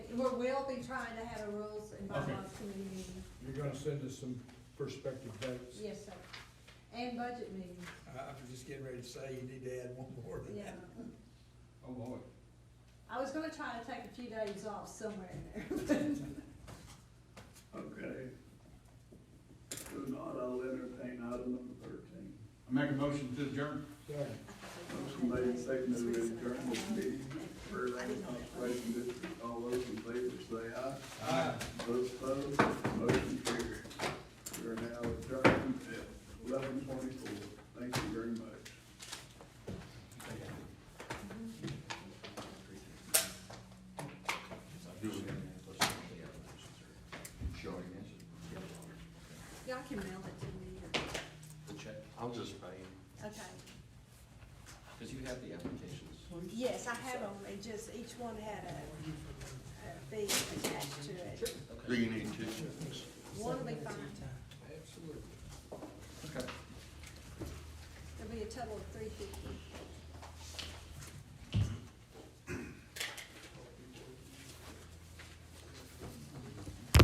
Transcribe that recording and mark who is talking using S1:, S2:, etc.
S1: we will be trying to have a rules and
S2: Okay.
S1: bylaws committee meeting,
S3: You're gonna send us some perspective dates.
S1: yes, sir, and budget meeting,
S4: I, I'm just getting ready to say you need to add one more to
S1: yeah.
S4: that.
S2: Oh, boy.
S1: I was gonna try to take a few days off somewhere in there.
S5: Okay. If not, I'll entertain item number thirteen.
S2: I make a motion to adjourn.
S3: Second.
S5: Motion made and seconded to adjourn this meeting. Further conservation district, all those in favor say aye.
S2: Aye.
S5: Those opposed, motion carried. We are now adjourned at eleven twenty-four. Thank you very much.
S6: Sure, yes.
S1: Y'all can mail it to me, or-
S6: The check, I'll just pay,
S1: okay,
S6: because you have the applications.
S1: yes, I have them, they just, each one had a, a fee attached to it,
S6: Do you need two checks?
S1: one will be fine,
S4: Absolutely.
S6: Okay.
S1: there'll be a total of three fifty.